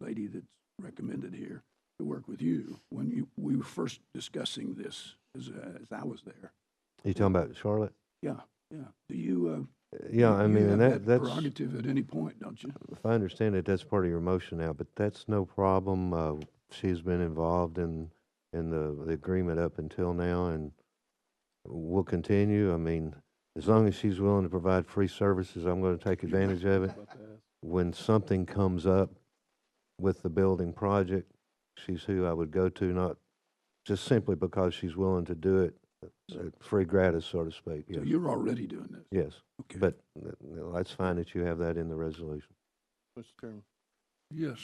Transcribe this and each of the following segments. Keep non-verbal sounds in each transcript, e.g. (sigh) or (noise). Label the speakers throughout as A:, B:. A: lady that's recommended here to work with you when you, we were first discussing this as, uh, as I was there.
B: You talking about Charlotte?
A: Yeah, yeah. Do you,
B: Uh,
A: uh?
B: Yeah, I
A: you
B: mean,
A: have
B: and that, that's,
A: Prerogative at any point, don't you?
B: if I understand it, that's part of your motion now, but that's no problem. Uh, she's been involved in, in the, the agreement up until now and we'll continue. I mean, as long as she's willing to provide free services, I'm gonna take advantage of it. When something comes up with the building project, she's who I would go to, not just simply because she's willing to do it, uh, free gratis, so to speak.
A: So
B: Yes.
A: you're already doing this.
B: Yes.
A: Okay.
B: But th- th- that's fine that you have that in the resolution.
C: Mr. Chairman,
A: Yes.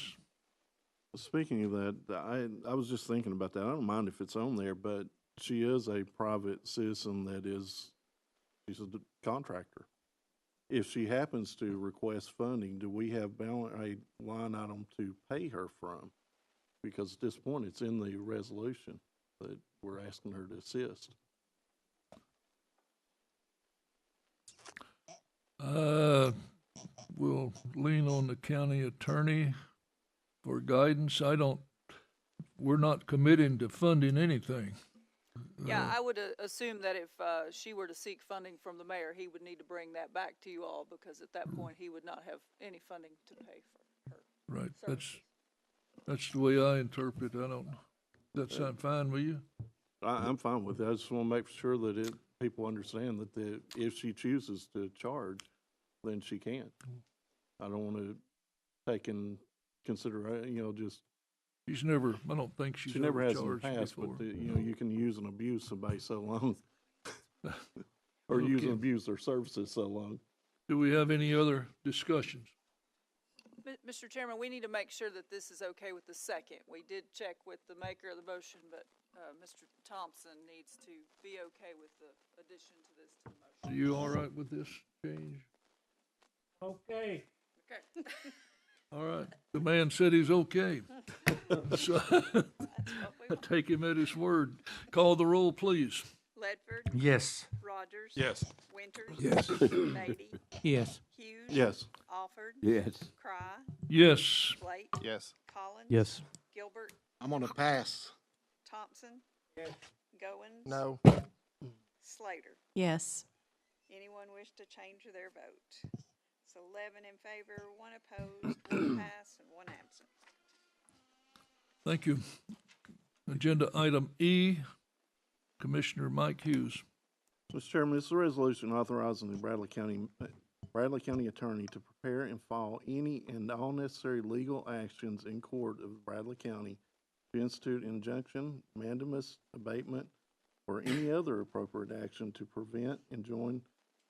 C: speaking of that, I, I was just thinking about that. I don't mind if it's on there, but she is a private citizen that is, she's a d- contractor. If she happens to request funding, do we have balance, a line item to pay her from? Because at this point, it's in the resolution that we're asking her to assist.
D: Uh, We'll lean on the county attorney for guidance. I don't, we're not committing to funding anything.
E: Yeah, I would uh, assume that if uh, she were to seek funding from the mayor, he would need to bring that back to you all because at that point, he would not have any funding to pay for her
D: Right, that's,
E: services.
D: that's the way I interpret. I don't, that sound fine with you?
C: I, I'm fine with it. I just want to make sure that it, people understand that the, if she chooses to charge, then she can. I don't want to take in consider, you know, just,
D: She's never, I don't think she's
C: she never
D: ever
C: has in the
D: charged
C: past,
D: before.
C: but, the- you know, you can use and abuse somebody
D: (laughs)
C: so long. Or use and
D: Okay.
C: abuse their services so long.
D: Do we have any other discussions?
E: Mi- Mr. Chairman, we need to make sure that this is okay with the second. We did check with the maker of the motion, but uh, Mr. Thompson needs to be okay with the addition to this to the motion.
D: Are you all right with this change?
F: Okay.
D: All right, the man said he's
C: (laughs)
D: okay. So, (laughs) I take him at his word. Call the roll, please.
G: Ledford,
F: Yes.
G: Rogers. Yes. Winters.
A: Yes.
G: Beatty.
F: Yes.
G: Hughes.
C: Yes,
G: Alford. Cry.
D: Yes,
G: Blake.
H: Yes.
G: Collins.
F: Yes.
G: Gilbert.
H: I'm gonna pass.
G: Thompson. Goins.
H: No.
G: Slater.
I: Yes.
G: Anyone wish to change their vote? It's eleven in favor, one opposed, one pass, and one absent.
D: Thank you. Agenda item E, Commissioner Mike Hughes.
C: Mr. Chairman, this is a resolution authorizing the Bradley County, uh, Bradley County Attorney to prepare and file any and all necessary legal actions in court of Bradley County to institute injunction, mandamus, abatement, or any other appropriate action to prevent, enjoin,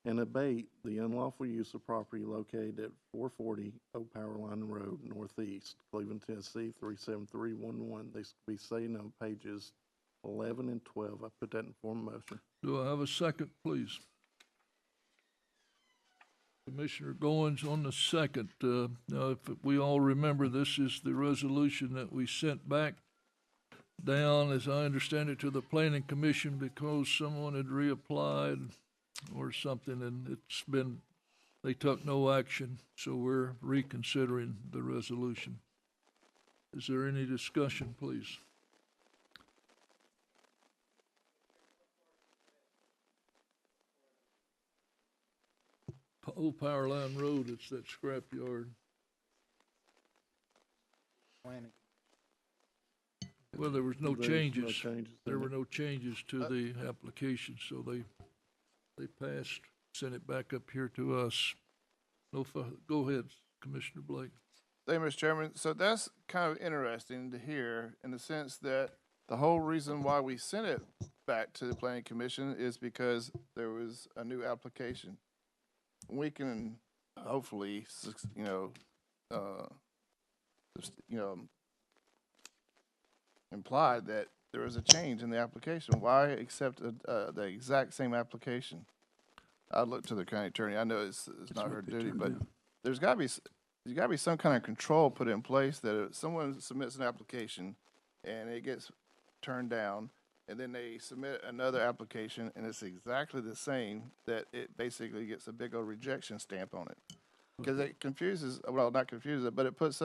C: and abate the unlawful use of property located at four forty Oak Power Line Road Northeast, Cleveland, Tennessee, three seven three one one. These could be seen on pages eleven and twelve. I put that in form of motion.
D: Do I have a second, please? Commissioner Goins on the second. Uh, Now, if we all remember, this is the resolution that we sent back down, as I understand it, to the Planning Commission because someone had reapplied or something, and it's been, they took no action, so we're reconsidering the resolution. Is there any discussion, please? P- Old Power Line Road, it's that scrapyard. Well, there was no
C: There is
D: changes.
C: changes in
D: There
C: it.
D: were no changes to the application, so they, they passed, sent it back up here to us. No, fu- go ahead, Commissioner Blake.
H: Thank you, Mr. Chairman. So that's kind of interesting to hear in the sense that the whole reason why we sent it back to the planning commission is because there was a new application. We can hopefully, suc- you know, uh, just, you know, imply that there was a change in the application. Why accept a, uh, the exact same application? I look to the county attorney. I know it's, it's not
A: what
H: her
A: they
H: duty,
A: turned
H: but
A: down.
H: there's gotta be, s- there's gotta be some kind of control put in place that if someone submits an application and it gets turned down, and then they submit another application and it's exactly the same, that it basically gets a big old rejection stamp on it. Cause it confuses, well, not confuses it, but it puts us